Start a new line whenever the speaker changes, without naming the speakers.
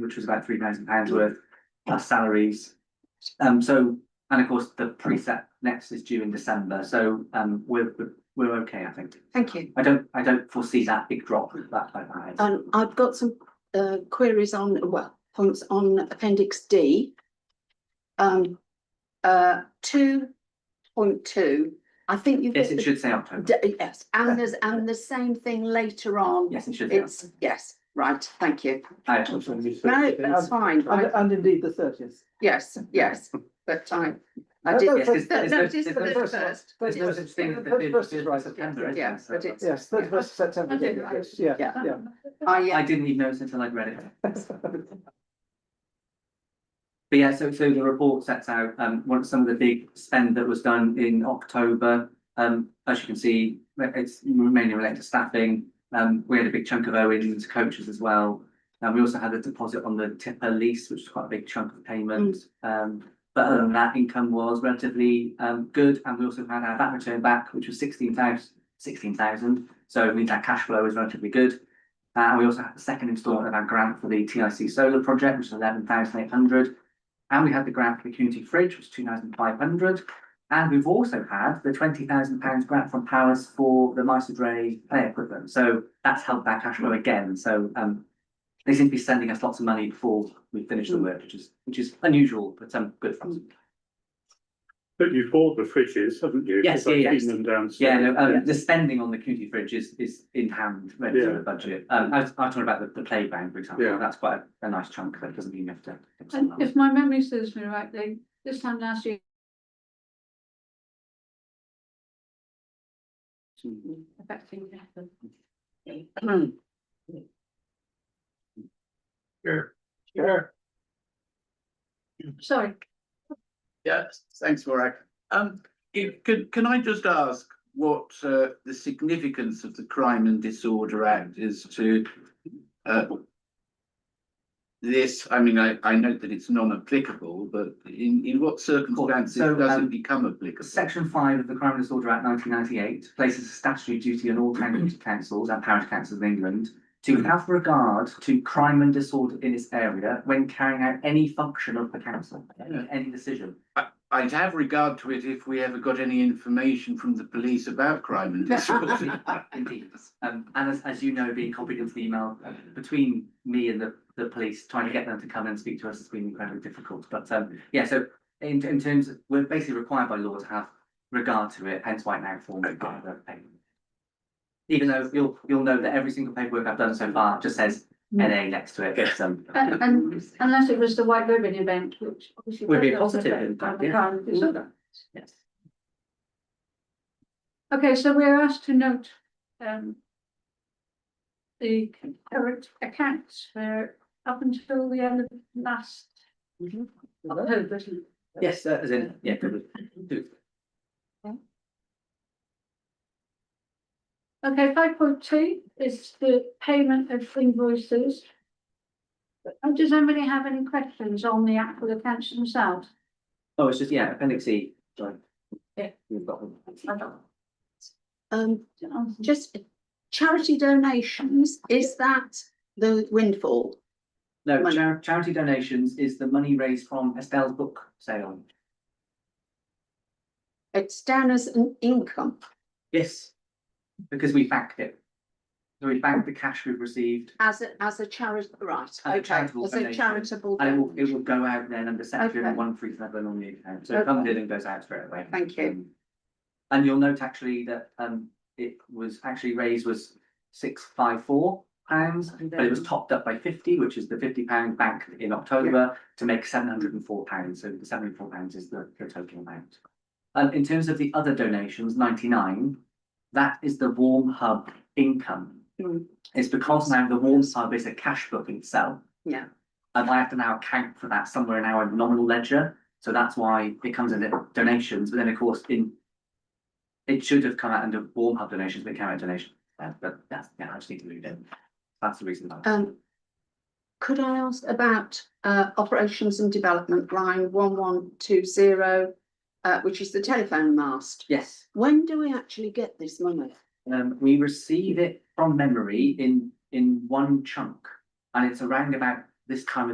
which was about three thousand pounds worth, plus salaries. Um, so, and of course, the preset next is due in December, so, um, we're, we're- we're okay, I think.
Thank you.
I don't, I don't foresee that big drop with that, like that. is.
Um, I've got some uh queries on, well, points on appendix D. Um, uh, two point two, I think you.
Yes, it should say October.
D- Yes, and there's, and the same thing later on.
Yes, it should say.
It's, yes, right, thank you.
October.
No, that's fine,
And,
I-
and indeed the thirtieth.
yes, yes, but I, I
No,
did.
no,
Yes, it's-
No,
it's-
no, it
it's-
is for
it's-
the first.
There's no such thing as the bid,
First is
bid
right.
September, is
Yeah,
there?
but it's-
Yes, thirty first September,
Okay,
yeah,
right.
yes, yeah,
Yeah.
yeah.
I,
I
uh,
didn't even notice until I'd read it. But yeah, so so the report sets out um one some of the big spend that was done in October. Um, as you can see, it's mainly related to staffing. Um, we had a big chunk of owing to coaches as well. And we also had a deposit on the tipper lease, which was quite a big chunk of payment. Um, but other than that, income was relatively um good, and we also had our VAT return back, which was sixteen thousand, sixteen thousand. So it means our cash flow is relatively good. Uh, and we also had the second instalment of our grant for the TIC solar project, which is eleven thousand eight hundred. And we had the grant for the community fridge, which is two thousand five hundred. And we've also had the twenty thousand pounds grant from Powers for the Mice Ray play equipment. So that's helped our cash flow again. So um they seem to be sending us lots of money before we finish the work, which is which is unusual, but um good for us.
But you've bought the fridges, haven't you?
Yes,
'Cause I've
yeah,
Seen them downstairs.
Yeah, no, um, the spending on the community fridge is, is in hand, ready to the
Yeah.
budget. Um, I was, I was talking about the, the playground, for example,
Yeah.
that's quite a, a nice chunk, that doesn't mean you have to. give
And
someone else.
if my memory serves me right, they, this time last year, affecting happened.
Sure. Sure,
Sorry,
yes, thanks, Warwick. Um, it- can, can I just ask what, uh, the significance of the Crime and Disorder Act is to, uh, this, I mean, I, I note that it's non-applicable, but in, in what circumstances
so,
does
um,
it become applicable?
Section five of the Crime and Disorder Act nineteen ninety-eight places a statutory duty on all county councils and parish councils in England to have regard to crime and disorder in its area when carrying out any function of the council,
Yeah.
any decision.
I'd have regard to it if we ever got any information from the police about crime and disorder.
Indeed. Um, and as, as you know, being copied into the email uh, between me and the, the police, trying to get them to come and speak to us has been incredibly difficult. But, um, yeah, so in, in terms, of- we're basically required by law to have regard to it, hence why it now forms part of the paper. Even though you'll, you'll know that every single paperwork I've done so far just says NA next to it,
Yeah.
so.
and, Uh, and unless it was the white ribbon event, which obviously.
Would be a
does not
positive
affect
impact,
the
yeah.
crime and disorder.
Yes.
Okay, so we're asked to note, um, the current accounts for up until the end of last Mm-hmm. October. isn't it?
Yes, uh, as in, yeah, good. Do-
Okay, five point two is the payment of invoices. Uh, Does anybody have any questions on the actual accounts themselves?
Oh, it's just, yeah, appendix E, sorry.
Yeah.
You've got them.
I don't-
um,
um,
just charity donations, is that the windfall?
No,
Money.
char- charity donations is the money raised from Estelle's book sale.
It's down as an income.
Yes. Because we backed it. So we backed the cash we've received
As a, as a charity, right,
As a
okay,
charitable
as a
donation.
charitable.
and it will, it will go out then under section
Okay.
one three seven on the account. So it comes in and goes out straight away.
Thank you.
Um, And you'll note actually that um it was actually raised was six five four pounds, but it was topped up by fifty, which is the fifty pound banked in October to make seven hundred and four pounds. So the seven hundred and four pounds is the the total amount. Um, in terms of the other donations, ninety-nine, that is the Warm Hub income.
Mm.
It's because now the Warm Hub is a cash book in itself.
Yeah.
And I have to now account for that somewhere in our nominal ledger, so that's why it comes in the donations, but then of course in. It should have come out under Warm Hub donations, but it came out donation, uh, but that's, yeah, I just need to move it. That's the reason. why.
Um, could I ask about, uh, operations and development line one one two zero, uh, which is the telephone mast?
Yes.
When do we actually get this money?
Um, we receive it from memory in, in one chunk. And it's around about this time of